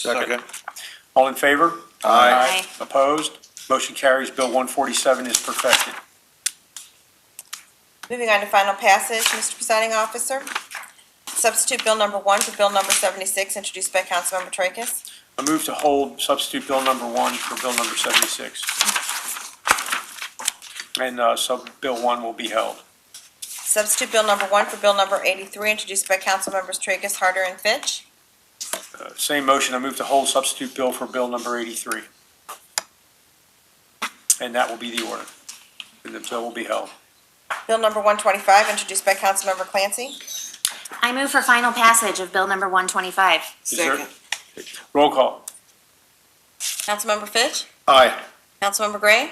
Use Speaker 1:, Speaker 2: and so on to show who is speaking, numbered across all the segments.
Speaker 1: Second.
Speaker 2: All in favor?
Speaker 1: Aye.
Speaker 2: Opposed? Motion carries. Bill 147 is perfected.
Speaker 3: Moving on to final passage, Mr. Presiding Officer. Substitute Bill Number 1 for Bill Number 76, introduced by Councilmember Tracus.
Speaker 2: I move to hold substitute bill number one for bill number 76. And uh, sub-bill one will be held.
Speaker 3: Substitute Bill Number 1 for Bill Number 83, introduced by Councilmembers Tracus, Harder, and Fitch.
Speaker 2: Uh, Same motion, I move to hold substitute bill for bill number 83. And that will be the order. And the bill will be held.
Speaker 3: Bill Number 125, introduced by Councilmember Clancy.
Speaker 4: I move for final passage of Bill number 125.
Speaker 2: Is there- Roll call.
Speaker 3: Councilmember Fitch.
Speaker 1: Aye.
Speaker 3: Councilmember Gray.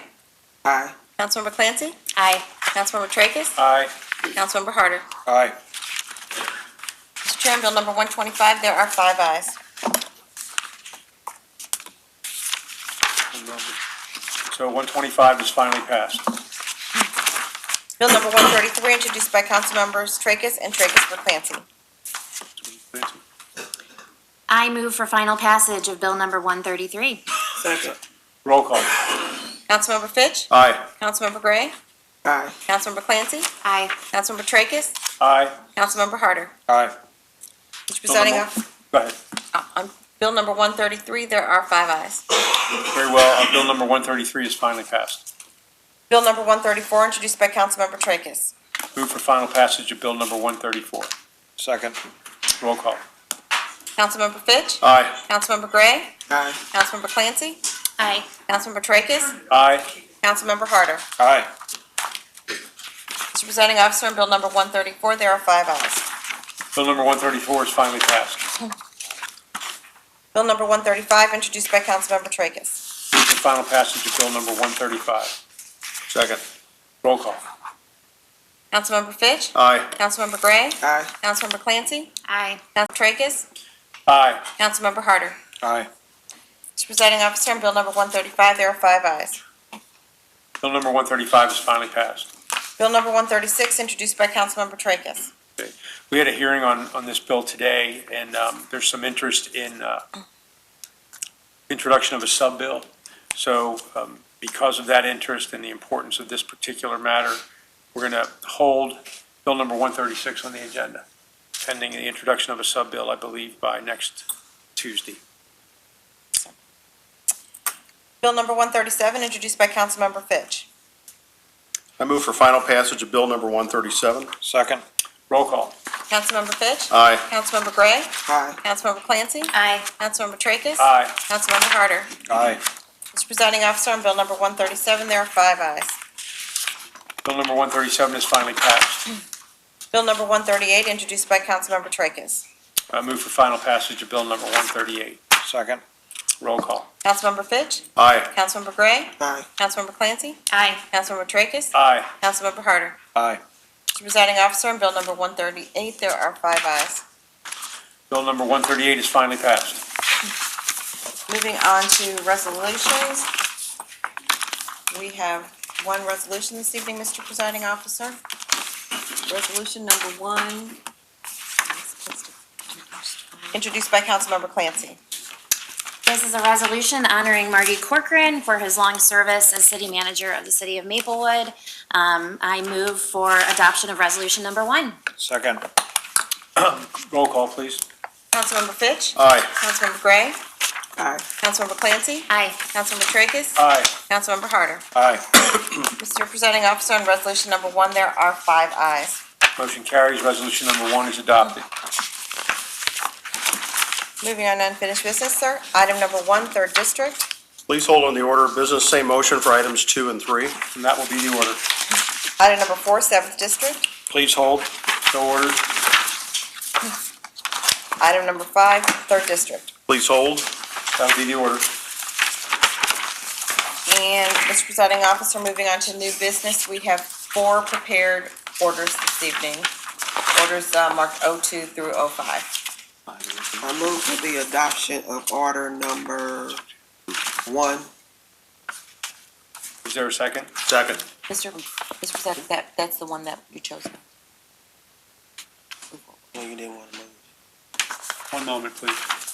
Speaker 5: Aye.
Speaker 3: Councilmember Clancy.
Speaker 4: Aye.
Speaker 3: Councilmember Tracus.
Speaker 2: Aye.
Speaker 3: Councilmember Harder.
Speaker 1: Aye.
Speaker 3: Mr. Chair, on Bill Number 125, there are five ayes.
Speaker 2: So 125 is finally passed.
Speaker 3: Bill Number 133, introduced by Councilmembers Tracus and Tracus for Clancy.
Speaker 4: I move for final passage of Bill number 133.
Speaker 5: Second.
Speaker 2: Roll call.
Speaker 3: Councilmember Fitch.
Speaker 1: Aye.
Speaker 3: Councilmember Gray.
Speaker 5: Aye.
Speaker 3: Councilmember Clancy.
Speaker 4: Aye.
Speaker 3: Councilmember Tracus.
Speaker 2: Aye.
Speaker 3: Councilmember Harder.
Speaker 1: Aye.
Speaker 3: Mr. Presiding
Speaker 2: Bill
Speaker 3: Officer,
Speaker 2: Go ahead.
Speaker 3: on Bill Number 133, there are five ayes.
Speaker 2: Very well, uh, bill number 133 is finally passed.
Speaker 3: Bill Number 134, introduced by Councilmember Tracus.
Speaker 2: Move for final passage of bill number 134.
Speaker 1: Second.
Speaker 2: Roll call.
Speaker 3: Councilmember Fitch.
Speaker 1: Aye.
Speaker 3: Councilmember Gray.
Speaker 5: Aye.
Speaker 3: Councilmember Clancy.
Speaker 4: Aye.
Speaker 3: Councilmember Tracus.
Speaker 2: Aye.
Speaker 3: Councilmember Harder.
Speaker 1: Aye.
Speaker 3: Mr. Presiding Officer, on Bill Number 134, there are five ayes.
Speaker 2: Bill number 134 is finally passed.
Speaker 3: Bill Number 135, introduced by Councilmember Tracus.
Speaker 2: Move for final passage of bill number 135.
Speaker 1: Second.
Speaker 2: Roll call.
Speaker 3: Councilmember Fitch.
Speaker 1: Aye.
Speaker 3: Councilmember Gray.
Speaker 5: Aye.
Speaker 3: Councilmember Clancy.
Speaker 4: Aye.
Speaker 3: Councilmember Tracus.
Speaker 2: Aye.
Speaker 3: Councilmember Harder.
Speaker 1: Aye.
Speaker 3: Mr. Presiding Officer, on Bill Number 135, there are five ayes.
Speaker 2: Bill number 135 is finally passed.
Speaker 3: Bill Number 136, introduced by Councilmember Tracus.
Speaker 2: We had a hearing on, on this bill today, and um, there's some interest in uh, introduction of a sub-bill. So um, because of that interest and the importance of this particular matter, we're going to hold bill number 136 on the agenda, pending the introduction of a sub-bill, I believe, by next Tuesday.
Speaker 3: Bill Number 137, introduced by Councilmember Fitch.
Speaker 6: I move for final passage of Bill number 137.
Speaker 1: Second.
Speaker 2: Roll call.
Speaker 3: Councilmember Fitch.
Speaker 6: Aye.
Speaker 3: Councilmember Gray.
Speaker 5: Aye.
Speaker 3: Councilmember Clancy.
Speaker 4: Aye.
Speaker 3: Councilmember Tracus.
Speaker 2: Aye.
Speaker 3: Councilmember Harder.
Speaker 1: Aye.
Speaker 3: Mr. Presiding Officer, on Bill Number 137, there are five ayes.
Speaker 2: Bill number 137 is finally passed.
Speaker 3: Bill Number 138, introduced by Councilmember Tracus.
Speaker 2: I move for final passage of bill number 138.
Speaker 1: Second.
Speaker 2: Roll call.
Speaker 3: Councilmember Fitch.
Speaker 6: Aye.
Speaker 3: Councilmember Gray.
Speaker 5: Aye.
Speaker 3: Councilmember Clancy.
Speaker 4: Aye.
Speaker 3: Councilmember Tracus.
Speaker 2: Aye.
Speaker 3: Councilmember Harder.
Speaker 1: Aye.
Speaker 3: Mr. Presiding Officer, on Bill Number 138, there are five ayes.
Speaker 2: Bill number 138 is finally passed.
Speaker 3: Moving on to resolutions. We have one resolution this evening, Mr. Presiding Officer. Resolution number one, introduced by Councilmember Clancy.
Speaker 4: This is a resolution honoring Marty Corcoran for his long service as city manager of the city of Maplewood. Um, I move for adoption of resolution number one.
Speaker 1: Second.
Speaker 2: Roll call, please.
Speaker 3: Councilmember Fitch.
Speaker 6: Aye.
Speaker 3: Councilmember Gray.
Speaker 5: Aye.
Speaker 3: Councilmember Clancy.
Speaker 4: Aye.
Speaker 3: Councilmember Tracus.
Speaker 2: Aye.
Speaker 3: Councilmember Harder.
Speaker 1: Aye.
Speaker 3: Mr. Presiding Officer, on resolution number one, there are five ayes.
Speaker 2: Motion carries. Resolution number one is adopted.
Speaker 3: Moving on to unfinished business, sir. Item number one, third district.
Speaker 6: Please hold on the order of business, same motion for items two and three.
Speaker 2: And that will be the order.
Speaker 3: Item number four, seventh district.
Speaker 1: Please hold.
Speaker 2: So ordered.
Speaker 3: Item number five, third district.
Speaker 6: Please hold.
Speaker 2: That will be the order.
Speaker 3: And Mr. Presiding Officer, moving on to new business, we have four prepared orders this evening. Orders uh, marked O2 through oh O5.
Speaker 5: I move for the adoption of order number one.
Speaker 2: Is there a second?
Speaker 6: Second.
Speaker 3: Mr. Mr. Presiding, that, that's the one that you chose.
Speaker 5: No, you didn't want to move.
Speaker 2: One moment, please.